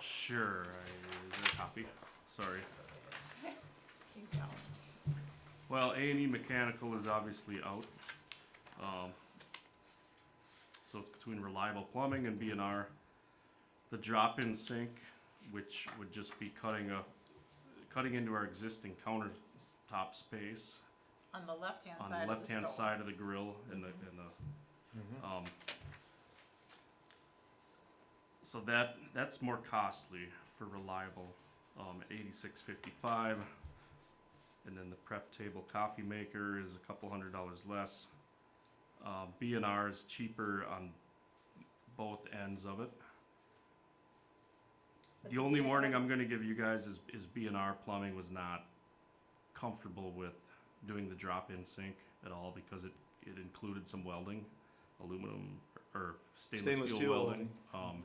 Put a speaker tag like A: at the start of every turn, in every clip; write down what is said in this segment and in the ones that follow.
A: Sure, I, is there a copy? Sorry.
B: He's down.
A: Well, A and E Mechanical is obviously out. Um, so it's between Reliable Plumbing and B and R. The drop-in sink, which would just be cutting a, cutting into our existing countertop space
B: On the left-hand
A: on
B: side
A: the
B: of the
A: left-hand
B: stove.
A: side of the grill and the, and the Um, so that that's more costly for reliable, um, at eighty six fifty five, and then the prep table coffee maker is a couple hundred dollars less. Uh, B and R is cheaper on both ends of it.
B: But
A: The
C: uh,
A: only
B: B&R
A: warning I'm gonna give you guys is is B and R plumbing was not comfortable with doing the drop in sink at all because it it included some welding, aluminum or stainless,
D: Stainless
A: steel,
D: steel
A: welding. Um,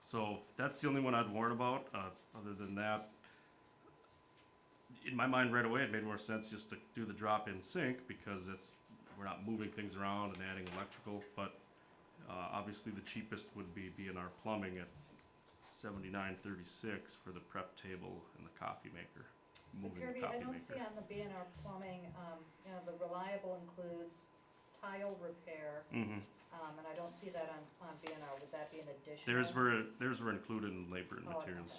A: so that's the only one I'd warn about. Uh, other than that, in my mind right away, it made more sense just to do the drop in sink because it's we're not moving things around and adding electrical. But uh, obviously, the cheapest would be B and R Plumbing at seventy nine thirty six for the prep table and the coffee maker.
C: But
A: Moving the
C: Kirby,
A: coffee
C: I don't
A: maker.
C: see on the B and R plumbing, um, you know, the reliable includes tile repair,
A: Mm-hmm.
C: um, and I don't see that on, on B and R, would that be an additional?
A: Theirs were theirs were included in labor and
C: Oh, okay.
A: materials.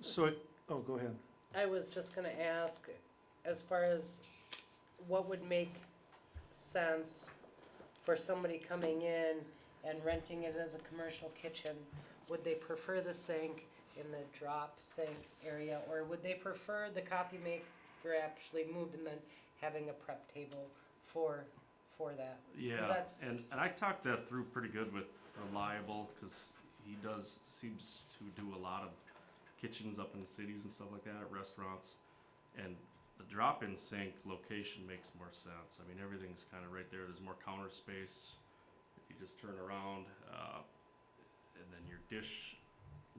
D: So, it- oh, go ahead.
E: I was just gonna ask, as far as what would make sense for somebody coming in and renting it as a commercial kitchen, would they prefer the sink in the drop sink area, or would they prefer the coffee maker actually moved and then having a prep table for, for that?
A: Yeah,
E: that's-
A: and, and I talked that through pretty good with Reliable because he does seems to do a lot of kitchens up in the cities and stuff like that, restaurants, and the drop-in sink location makes more sense. I mean, everything's kind of right there. There's more counter space if you just turn around, uh, and then your dish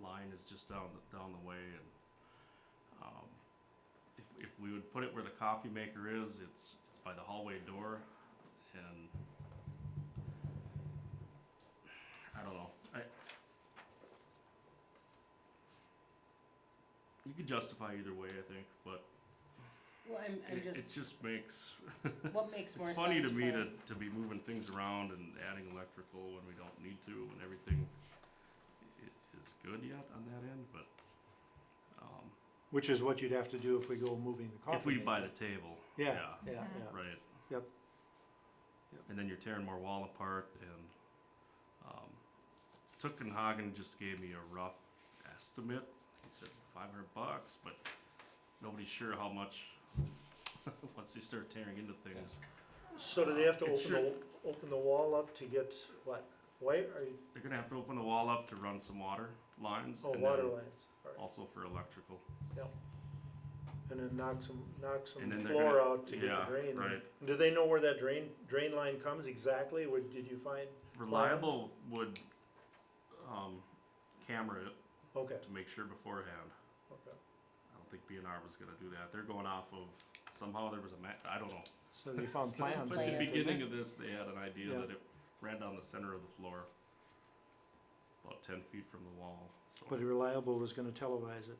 A: line is just down the, down the way. And um, if if we would put it where the coffee maker is, it's it's by the hallway door, and I don't know. I you could justify either way, I think, but
E: Well, I'm, I'm
A: it, it
E: just,
A: just makes
E: what makes more
A: it's
E: sense?
A: funny to me
E: for-
A: to, to be moving things around and adding electrical when we don't need to when everything i- is good yet on that end. But um,
D: Which is what you'd have to do if we go moving the coffee.
A: if we
D: maker.
A: buy the table,
D: Yeah, yeah, yeah.
A: right.
D: Yep. Yep.
A: And then you're tearing more wall apart and um, Took and Hagen just gave me a rough estimate. He said 500 bucks, but nobody's sure how much once they start tearing into things.
D: So do they have to
A: It
D: open the, open the wall up to get what, white or
A: They're gonna have to open the wall up to run some water lines.
D: oh,
A: and
D: water
A: then
D: lines? All right.
A: Also for electrical.
D: And then knock some, knock
A: And then
D: some
A: they're
D: floor
A: gonna-
D: out to get
A: yeah,
D: the drain. in.
A: right.
D: Do they know where that drain, drain line comes exactly? Where, did you find?
A: Reliable would um, camera it
D: Okay,
A: to make sure beforehand.
D: okay.
A: I don't think BNR was gonna do that. They're going off of somehow there was a ma- I don't know.
D: So they found plans.
A: But at the
E: Plans.
A: beginning of this, they had an idea
D: Yeah.
A: that it ran down the center of the floor, about ten feet from the wall. So,
D: But Reliable was gonna televise it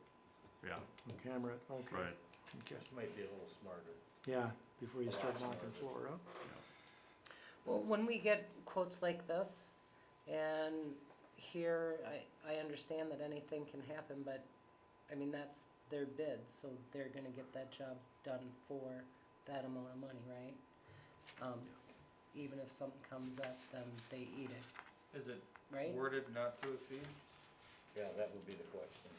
A: yeah,
D: and camera it, okay.
A: right.
D: Okay.
F: Might be a little smarter.
D: Yeah, before you start knocking floor out.
E: Well, when we get quotes like this, and here, I, I understand that anything can happen, but, I mean, that's their bid, so they're gonna get that job done for that amount of money, right? Um, even if something comes up, then they eat it,
G: Is it
E: right?
G: worded not to exceed?
F: Yeah, that would be the question.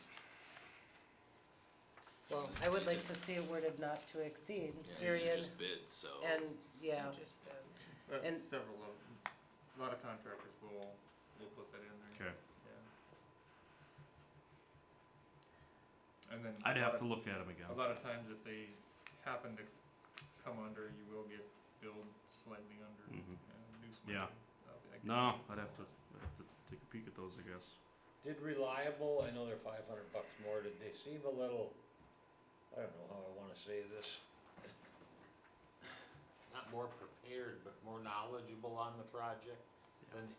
E: Well, I would like to see it worded not to exceed, period,
H: bids, so.
E: and, yeah,
B: Just been-
G: Uh,
E: And-
G: Several of, a lot of contractors will, will put that in there,
A: Okay,
G: yeah. And then.
A: I'd
G: a
A: have
G: lot
A: to
G: of-
A: look at them again.
G: A lot of times if they happen to come under, you will get billed slightly under,
A: Mhm.
G: uh, new
A: Yeah.
G: smarter.
A: No, I'd have to I'd have to take a peek at those, I guess.
F: Did Reliable, I know they're five hundred bucks more, did they seem a little, I don't know how I wanna say this. Not more prepared, but more knowledgeable on the project than